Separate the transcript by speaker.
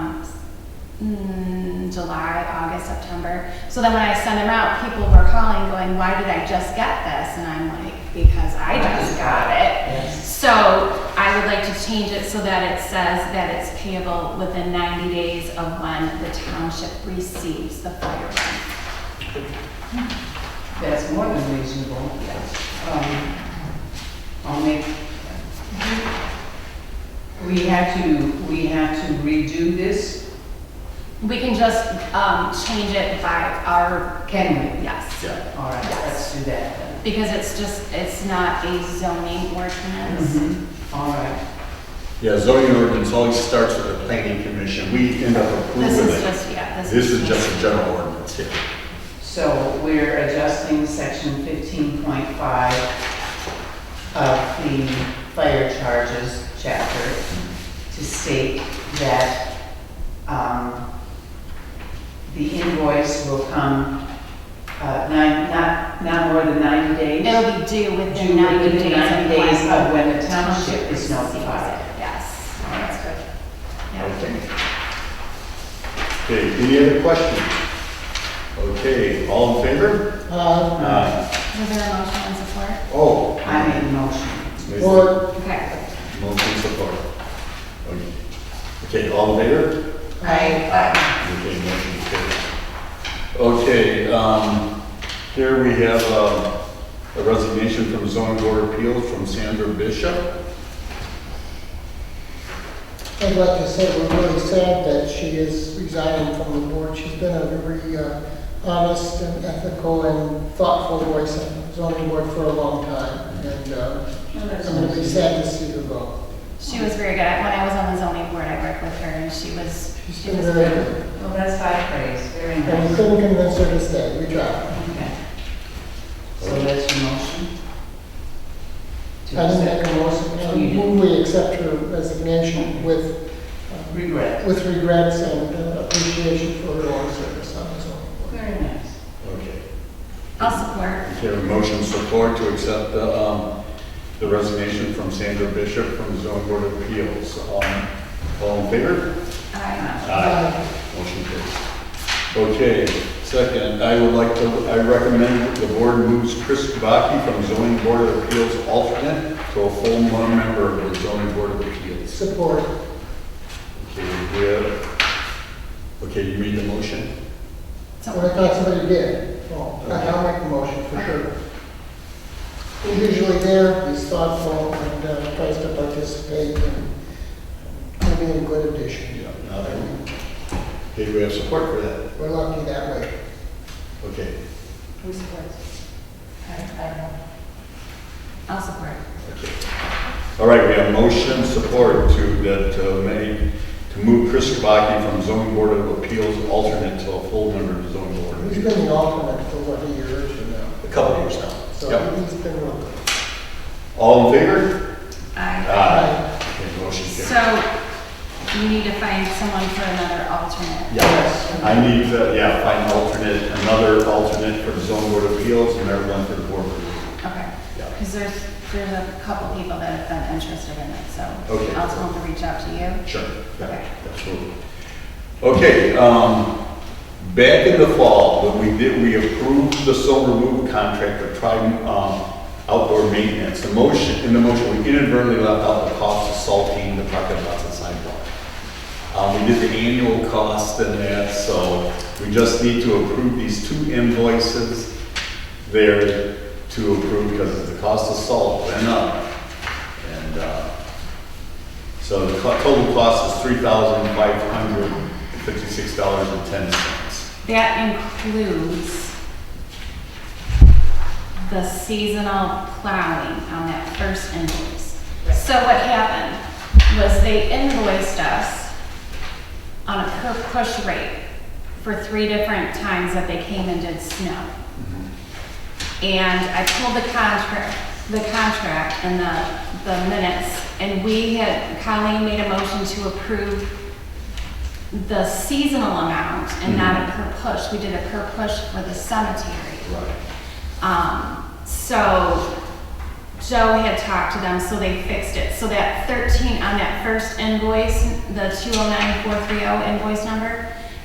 Speaker 1: mm, July, August, September. So then when I sent them out, people were calling going, why did I just get this? And I'm like, because I just got it.
Speaker 2: Yes.
Speaker 1: So I would like to change it so that it says that it's payable within 90 days of when the township receives the fire warrant.
Speaker 2: That's more than reasonable. Um, I'll make, we have to, we have to redo this,
Speaker 1: We can just um, change it by our,
Speaker 2: can we?
Speaker 1: yes.
Speaker 2: All right, let's do that then.
Speaker 1: Because it's just, it's not a zoning
Speaker 3: Mm-hmm.
Speaker 1: ordinance.
Speaker 2: Mhm. All right,
Speaker 3: Yeah, zoning ordinance always starts with the planning commission. We end up
Speaker 1: This
Speaker 3: approving
Speaker 1: is
Speaker 3: it.
Speaker 1: just, yeah, this is.
Speaker 3: This is just a general ordinance here.
Speaker 2: so we're adjusting section fifteen point five of the fire charges chapter to state that, um, the invoice will come, uh, nine, not, not more than ninety days.
Speaker 1: It'll be due within
Speaker 2: Due
Speaker 1: 90
Speaker 2: within
Speaker 1: days.
Speaker 2: 90
Speaker 1: when
Speaker 2: days of when the township is notified.
Speaker 1: receives it. Yes, that's good. Yeah.
Speaker 3: Okay. Okay, any other questions? Okay, all in favor? Aye.
Speaker 1: Was there a motion and support?
Speaker 3: Oh.
Speaker 2: I made a motion.
Speaker 3: Support.
Speaker 1: Okay.
Speaker 3: Motion support. Okay. Okay, all in favor?
Speaker 2: I,
Speaker 3: Okay, motion carries. Okay, um, here we have uh, a resignation from zoning board of appeals from Sandra Bishop.
Speaker 4: I'd like to say we're really sad that she is resigning from the board. She's been a very uh, honest and ethical and thoughtful voice on the zoning board for a long time. And uh, I'm going to be sad to see her go.
Speaker 1: She was very good. When I was on the zoning board, I worked with her and she was,
Speaker 4: She's
Speaker 1: she
Speaker 4: been
Speaker 1: was
Speaker 4: very
Speaker 1: good.
Speaker 4: good.
Speaker 2: well, Oh, that's high praise, very
Speaker 4: And we
Speaker 2: nice.
Speaker 4: couldn't convince her to stay. We tried.
Speaker 2: Okay. So that's your motion?
Speaker 4: I
Speaker 2: To
Speaker 4: didn't
Speaker 2: accept
Speaker 4: make a motion.
Speaker 2: Oh, you
Speaker 4: I
Speaker 2: didn't.
Speaker 4: move we accept her resignation with, uh,
Speaker 2: Regret.
Speaker 4: with regrets and uh, appreciation for her long service on the zoning board.
Speaker 2: Very nice.
Speaker 3: Okay.
Speaker 1: I'll support.
Speaker 3: Okay, a motion support to accept the, um, the resignation from Sandra Bishop from the zoning board of appeals. Um, all in favor?
Speaker 1: Aye.
Speaker 3: Motion carries. Okay, second, I would like to, I recommend the board moves Chris Kubaki from zoning board of appeals alternate to a full member of the zoning board of appeals.
Speaker 4: Support.
Speaker 3: Okay, we have, okay, you made the motion?
Speaker 4: Well, I
Speaker 1: So,
Speaker 4: thought somebody did. Well, I- I'll make a motion for sure. He's usually there, he's thoughtful, and uh, tries to participate, and he'll be a good addition.
Speaker 3: Now then, Okay, we have support for that?
Speaker 4: We're lucky that way.
Speaker 3: Okay.
Speaker 2: Who supports? I, I don't.
Speaker 1: I'll support.
Speaker 3: All right, we have motion support to, that, uh, made, to move Chris Kabaki from zoning board of appeals alternate to a full member of the zoning board.
Speaker 4: He's been the alternate for what, a year or two now?
Speaker 3: A couple years now.
Speaker 4: So
Speaker 3: Yep.
Speaker 4: he's been real good.
Speaker 3: All in favor?
Speaker 1: Aye.
Speaker 3: Uh, Aye. Okay, motion carries.
Speaker 1: So you need to find someone for another alternate.
Speaker 3: Yes, I need to, yeah, find alternate, another alternate for the zoning board of appeals and another one for the board. of review.
Speaker 1: Okay.
Speaker 3: Yeah.
Speaker 1: Because there's, there's a couple people that have been interested in it, so
Speaker 3: Okay.
Speaker 1: I'll tell them to reach out to you.
Speaker 3: Sure.
Speaker 1: Okay.
Speaker 3: Yeah, absolutely. Okay, um, back in the fall, when we did, we approved the snow removal contract for Trident, um, outdoor maintenance. The motion, in the motion, we inadvertently left out the cost of salting the parking lots and sidewalk. Um, we did the annual cost and that, so we just need to approve these two invoices there to approve because of the cost of salt went up. And, uh, so the co- total cost is three thousand five hundred fifty-six dollars and ten cents.
Speaker 1: That includes the seasonal plowing on that first invoice. So what happened was they invoiced us on a per push rate for three different times that they came and did snow. And I pulled the contract, the contract and the, the minutes, and we had, Colleen made a motion to approve the seasonal amount and not a per push. We did a per push for the cemetery.
Speaker 3: Right.
Speaker 1: Um, so Joe had talked to them, so they fixed it. So that thirteen on that first invoice, the two oh nine four three oh invoice number,